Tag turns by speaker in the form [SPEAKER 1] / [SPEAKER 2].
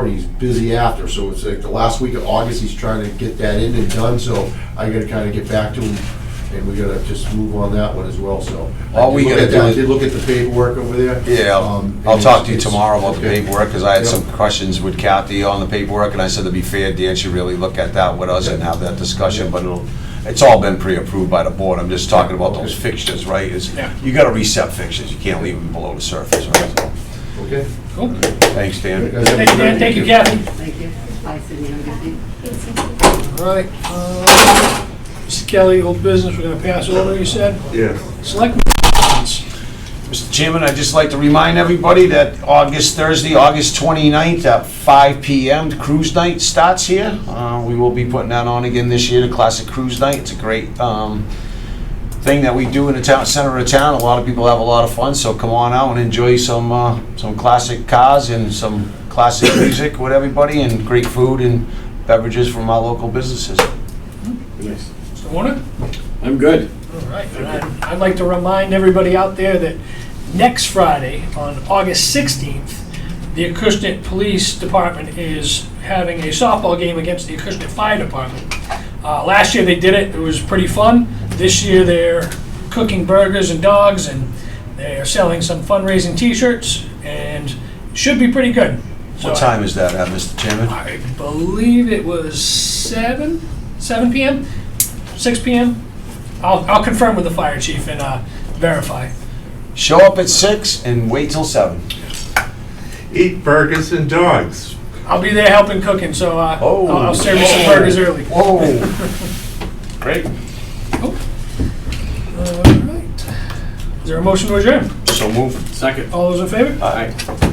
[SPEAKER 1] and he's busy after, so it's like the last week of August, he's trying to get that in and done, so I gotta kinda get back to him, and we gotta just move on that one as well, so. I
[SPEAKER 2] All we
[SPEAKER 1] did look
[SPEAKER 2] gotta
[SPEAKER 1] at that-
[SPEAKER 2] do
[SPEAKER 1] I
[SPEAKER 2] is-
[SPEAKER 1] did look at the paperwork over there.
[SPEAKER 2] Yeah,
[SPEAKER 1] um,
[SPEAKER 2] I'll- I'll
[SPEAKER 1] and
[SPEAKER 2] talk to you
[SPEAKER 1] it's-
[SPEAKER 2] tomorrow about the
[SPEAKER 1] okay.
[SPEAKER 2] paperwork, because I had
[SPEAKER 1] Yeah.
[SPEAKER 2] some questions with Kathy on the paperwork, and I said to be fair, Dan should really look at that with us and have that discussion, but it'll, it's all been pre-approved by the board, I'm just talking about those fixtures, right? Is You gotta reset fixtures, you can't leave them below the surface, right? So,
[SPEAKER 1] Okay.
[SPEAKER 3] Cool.
[SPEAKER 2] Thanks, Dan.
[SPEAKER 3] Thank you, Dan. Thank you, Kathy.
[SPEAKER 4] Thank you. Bye, Sydney. Have a good day.
[SPEAKER 3] All right. uh, Mr. Kelly, old business, we're gonna pass over, you said?
[SPEAKER 1] Yeah.
[SPEAKER 3] Select.
[SPEAKER 2] Mr. Chairman, I'd just like to remind everybody that August, Thursday, August 29th at 5 PM, the Cruise Night starts here. Uh, We will be putting that on again this year, the Classic Cruise Night. It's a great um, thing that we do in the town, center of town. A lot of people have a lot of fun, so come on out and enjoy some, uh, some classic cars and some classic music with everybody, and great food and beverages from our local businesses.
[SPEAKER 3] Mr. Warner?
[SPEAKER 5] I'm good.
[SPEAKER 3] All right. and I'd- I'd like to remind everybody out there that next Friday, on August 16th, the Acushnet Police Department is having a softball game against the Acushnet Fire Department. Uh, Last year they did it, it was pretty fun. This year they're cooking burgers and dogs, and they're selling some fundraising T-shirts, and should be pretty good.
[SPEAKER 2] What
[SPEAKER 3] So,
[SPEAKER 2] time is that at, Mr. Chairman?
[SPEAKER 3] I believe it was seven, seven PM, six PM. I'll, I'll confirm with the fire chief and uh, verify.
[SPEAKER 2] Show up at 6 and wait till 7.
[SPEAKER 6] eat burgers and dogs.
[SPEAKER 3] I'll be there helping cooking, so uh, I'll, I'll serve you some
[SPEAKER 2] Oh.
[SPEAKER 3] burgers early. All
[SPEAKER 2] Whoa. Great.
[SPEAKER 3] right. Is there a motion to adjourn?
[SPEAKER 2] So move.
[SPEAKER 5] Second.
[SPEAKER 3] All those in favor?
[SPEAKER 5] Aye.